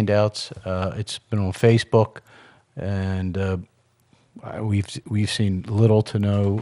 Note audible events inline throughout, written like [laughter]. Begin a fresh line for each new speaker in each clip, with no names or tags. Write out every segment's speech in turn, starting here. handouts. Uh, It's been on Facebook, and uh, I- we've, we've seen little to no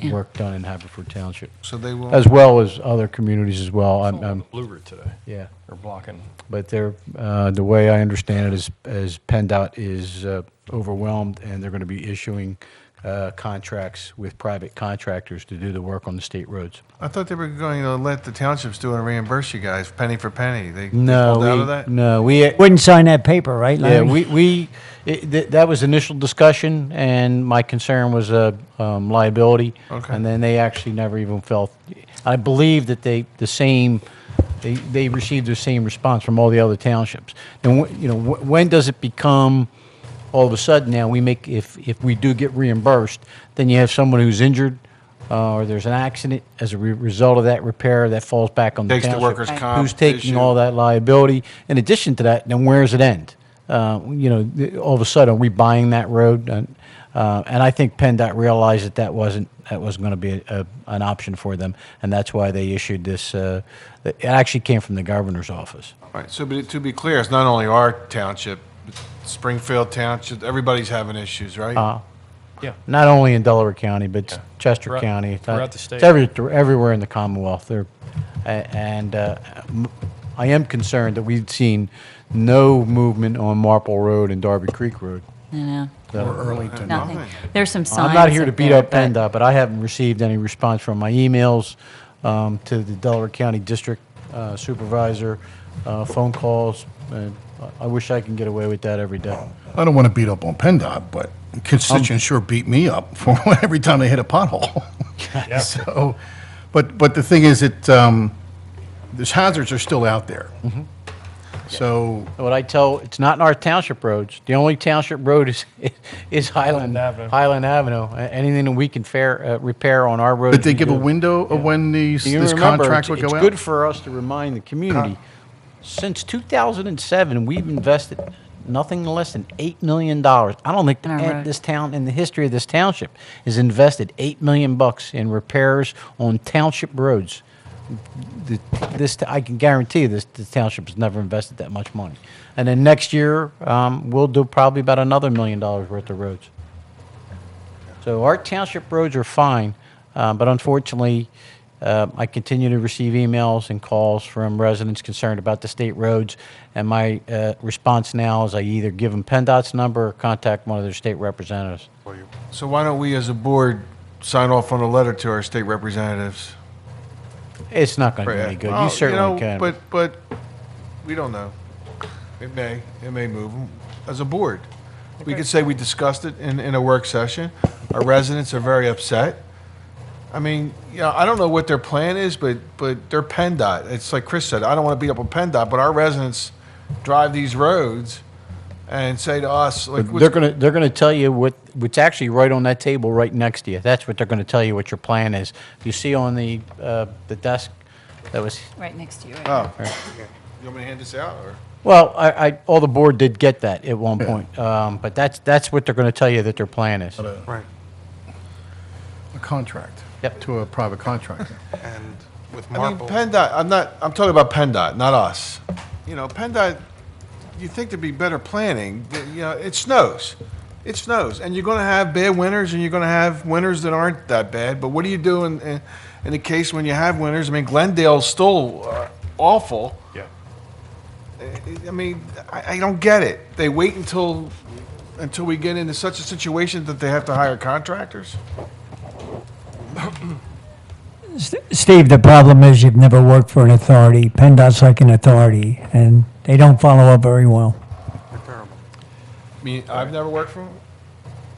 Yeah.
work done in Haverford Township,
So they will.
as well as other communities as well. I'm, I'm-
Blue Route today,
yeah,
or blocking.
but they're, uh, the way I understand it is, is PennDOT is uh, overwhelmed, and they're going to be issuing uh, contracts with private contractors to do the work on the state roads.
I thought they were going to let the townships do it and reimburse you guys penny for penny. They they
No,
pulled out of
we-
that.
no, we,
Wouldn't sign that paper, right,
Yeah,
Larry?
we, we, it- th- that was initial discussion, and my concern was uh, um, liability.
Okay.
And then they actually never even felt, I believe that they, the same, they, they received the same response from all the other townships. And, wh- you know, wh- when does it become, all of a sudden now, we make, if, if we do get reimbursed, then you have someone who's injured, uh, or there's an accident as a re- result of that repair, that falls back on the
Takes the
township.
workers' comp
Who's taking
issue.
all that? that liability. In addition to that, then where does it end? Uh, You know, th- all of a sudden, are we buying that road? And uh, and I think PennDOT realized that that wasn't, that wasn't going to be a- an option for them, and that's why they issued this, uh, it actually came from the governor's office.
Right. So, but to be clear, it's not only our township, Springfield Township. Everybody's having issues, right?
Uh-huh.
Yeah.
Not only in Delaware County, but Chester
Throughout-
County. It's not-
throughout the state.
It's every- thr- everywhere in the Commonwealth. There, a- and uh, m- I am concerned that we've seen no movement on Marple Road and Darby Creek Road.
You know,
Or
Nothing.
nothing. There's some signs.
I'm not here to
up
beat
there,
up
but-
PennDOT, but I haven't received any response from my emails um, to the Delaware County District uh, Supervisor, uh, phone calls. and I I wish I can get away with that every day.
I don't want to beat up on PennDOT, but
Um,
constituents sure beat me up [laughs] for every time they hit a pothole. [laughs] So, but, but the thing is that, um, these hazards are still out there.
Mm-hmm.
So,
What I tell, it's not in our township roads. The only township road is, [laughs] is Highland,
Highland Avenue.
Highland Avenue. A- Anything that we can fair, uh, repair on our roads.
did they
we
give a
do.
window of when these,
Do you
this
remember,
contract would
it's-
go out?
It's good for us to remind the community, since 2007, we've invested nothing less than $8 million. I don't think
In our
that
road.
this town, in the history of this township, has invested 8 million bucks in repairs on township roads. The- This, I can guarantee you this, the township has never invested that much money. And then next year, um, we'll do probably about another million dollars worth of roads. So our township roads are fine, uh, but unfortunately, uh, I continue to receive emails and calls from residents concerned about the state roads. And my uh, response now is I either give them PennDOT's number or contact one of their state representatives.
So why don't we, as a board, sign off on a letter to our state representatives?
It's not going to do any good.
Well,
You certainly
know,
can.
But but we don't know. It may it may move 'em. as a board. We could say we discussed it in, in a work session. Our residents are very upset. I mean, you know, I don't know what their plan is, but but they're PennDOT. It's like Chris said. I don't want to beat up on PennDOT, but our residents drive these roads and say to us like,
But
what's-
They're gonna, they're gonna tell you what, what's actually right on that table right next to you. That's what they're gonna tell you what your plan is. You see on the, uh, the desk, that was
Right next to you. right?
"Oh, you want me to hand this out?" Or
Well, I, I, all the board did get that at one point, um, but that's, that's what they're gonna tell you that their plan is.
Right,
A contract.
Yep.
To a private contractor.
and with
I mean,
Marple,
PennDOT, I'm not, I'm talking about PennDOT, not us. You know, PennDOT, you think there'd be better planning, but, you know, it snows. It snows, and you're gonna have bad winters, and you're gonna have winters that aren't that bad, but what do you do in, in, in the case when you have winters? I mean, Glendale's still uh, awful.
Yeah.
I- I mean, I, I don't get it. They wait until, until we get into such a situation that they have to hire contractors?
Steve, the problem is you've never worked for an authority. PennDOT's like an authority, and they don't follow up very well.
they're terrible.
I mean, I've never worked for, 'em.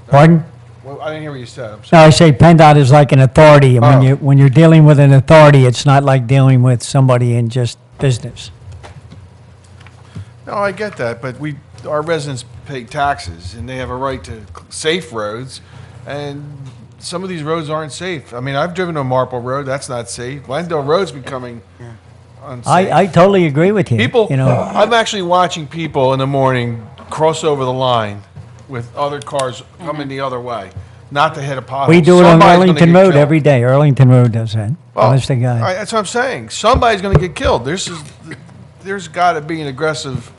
Pardon?
well, I didn't hear what you said, I'm sorry.
No, I say PennDOT is like an authority, and
Oh.
when you, when you're dealing with an authority, it's not like dealing with somebody in just business.
No, I get that, but we, our residents pay taxes, and they have a right to c- safe roads, and some of these roads aren't safe. I mean, I've driven on Marple Road, that's not safe. Glendale Road's becoming unsafe.
I, I totally agree with you.
People,
You know,
I'm actually watching people in the morning cross over the line with other cars coming the other way, not to hit a pothole.
we do it on
Somebody's gonna
Arlington
get
Road
killed.
every day. Arlington Road does that.
Well,
Honest to
I-
God.
that's what I'm saying. Somebody's going to get killed. There's, there's got to be an aggressive